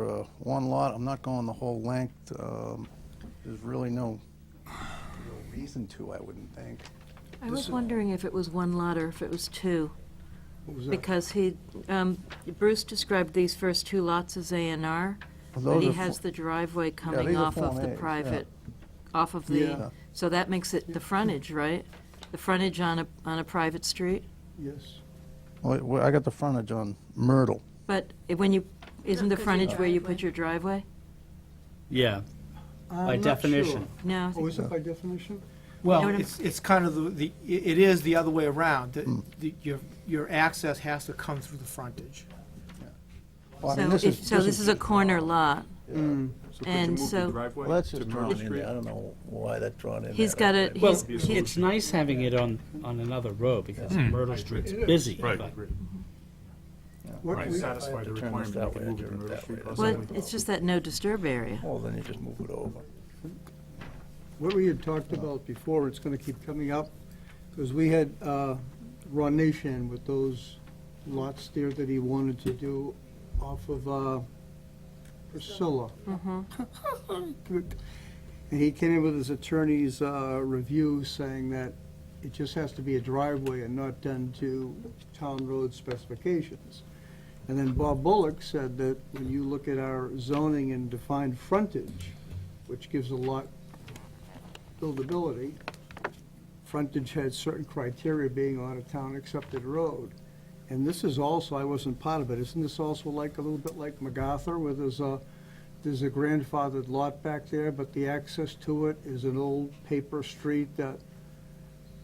uh, one lot, I'm not going the whole length. Um, There's really no real reason to, I wouldn't think. I was wondering if it was one lot or if it was two, What was that? because he, um, Bruce described these first two lots as A and R, Well, but those he are has fo- the driveway coming these are off of Form the As, yeah. private, off of Yeah. the, so that makes it the frontage, right? The frontage on a, on a private street? Yes. Well, it- well, I got the frontage on Myrtle. But when you, isn't the 'cause your frontage where you put driveway. your driveway? Yeah, by I'm not definition. sure. No, Oh, is it by definition? You Well, know what I'm- it's, it's kind of the, the it it is the other way around. The- the- Your, your access has to come through the frontage. Well, I so, mean, if- so this is a corner lot, and so Well, that's just drawn in there. I don't know why that drawn in there. he's got a, that way. well, he's, he- it's nice having it on, on another road because Myrtle Street's busy. Right. but- What Right, we- satisfy the to turn this requirement, you that can way, move I it do to it Myrtle that Street. way. That's well, all we- it's just that no disturb area. Well, then you just move it over. What we had talked about before, it's going to keep coming up, because we had uh, Ron Nation with those lots there that he wanted to do off of uh, Priscilla. And he came in with his attorney's uh, review saying that it just has to be a driveway and not done to town road specifications. And then Bob Bullock said that when you look at our zoning and defined frontage, which gives a lot buildability, frontage had certain criteria being on a town-accepted road. And this is also, I wasn't part of it, isn't this also like, a little bit like MacArthur, where there's a, there's a grandfathered lot back there, but the access to it is an old paper street that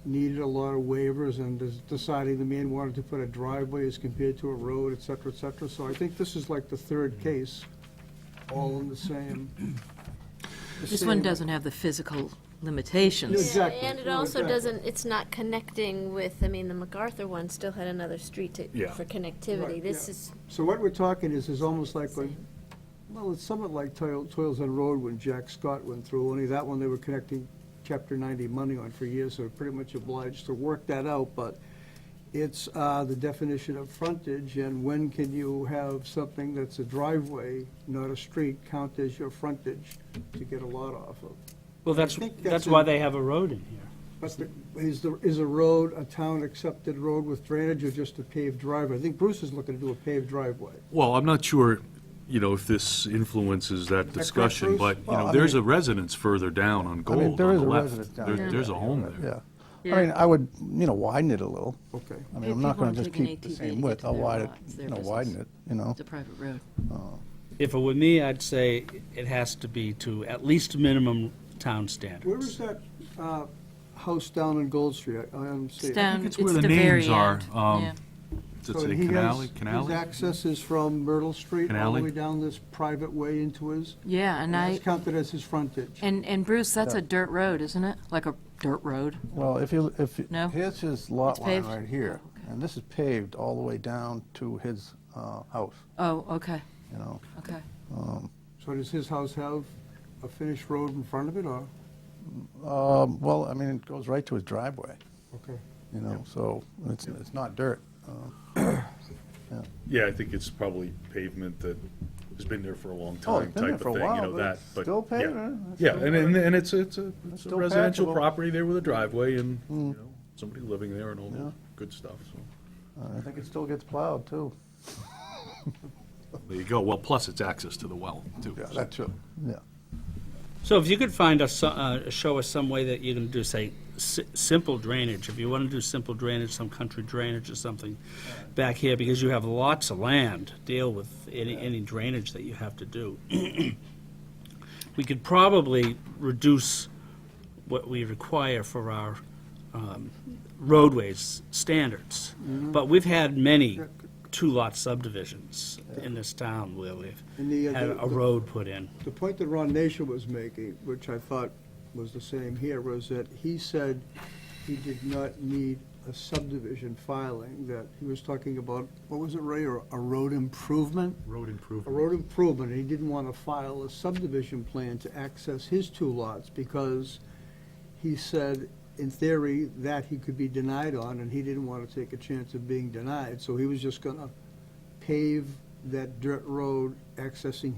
needed a lot of waivers, and des- deciding the man wanted to put a driveway as compared to a road, et cetera, et cetera. So I think this is like the third case, all in the same. the This one same- doesn't have the physical Yeah, limitations. Exactly. And it No, also exactly. doesn't, it's not connecting with, I mean, the MacArthur one still had another street to, Yeah. for Right, connectivity. This yeah. is, So what we're talking is, is almost like when, well, it's somewhat like Toil- Toils on Road when Jack Scott went through, only that one they were connecting Chapter 90 money on for years, so they're pretty much obliged to work that out, but it's uh, the definition of frontage, and when can you have something that's a driveway, not a street, count as your frontage to get a lot off of? Well, that's, think that's that's why in- they have a road in here. But the- is the, is a road a town-accepted road with drainage or just a paved driveway? I think Bruce is looking to do a paved driveway. Well, I'm not sure, you know, if this influences that discussion, Bruce? but, you Well, know, I there's mean- a residence further down on I mean, Gold there on is the a left. residence down There- there. There's a home there. Yeah. I mean, I would, you know, widen it a little. Okay. I mean, People I'm not going aren't to just taking keep the ATV to same get width. to I'll their widen, lots, it, their you know, business. widen it, you know. It's a private road. If it were me, I'd say it has to be to at least minimum town Where is standards. that uh, house down on Gold Street? I I don't see It's it. down, Um, it's it's where the the very names are, end. um, Yeah. Does it So say he has- Canale, His Canale? access is from Myrtle Street all the Canale? way down this private way into his, Yeah, and I, it's counted as his frontage. and, and Bruce, that's a dirt road, isn't it? Like a dirt road? Well, if you, if, you- No? here's his lot It's line paved? right here, Oh, and this is paved all the way down to his uh, house, Oh, okay, you know. Um, okay. So does his house have a finished road in front of it, or? Um, Well, I mean, it goes right to his driveway, Okay. you know, so it's, it's not dirt. Yeah, I think it's probably pavement that has been there for a Oh, long it's time been there type of for a thing, you while, know, but that, it's but. still yeah. paving, it's Yeah, still and, and and it's, it's a it's a still residential patchable. Hmm. property there with a driveway and, you know, somebody living there and all Yeah. the good stuff, so. Uh, I think it still gets plowed, too. There you go. Well, plus it's access to the well, too. too. Yeah. so- So if you could find us, so- uh, show us some way that you can do, say, si- simple drainage. If you want to do simple drainage, some country drainage or something back here, because you have lots of land, deal with any, any drainage that you have to do. We could probably reduce what we require for our um, roadways standards. Mm-hmm. But we've had many two-lot subdivisions in this town where we've And the, uh, had the- a road put in. The point that Ron Nation was making, which I thought was the same here, was that he said he did not need a subdivision filing, that he was talking about, what was it, Ray, or a road improvement? Road a improvement. road improvement, he didn't want to file a subdivision plan to access his two lots because he said, in theory, that he could be denied on, and he didn't want to take a chance of being denied, so he was just gonna pave that dirt road accessing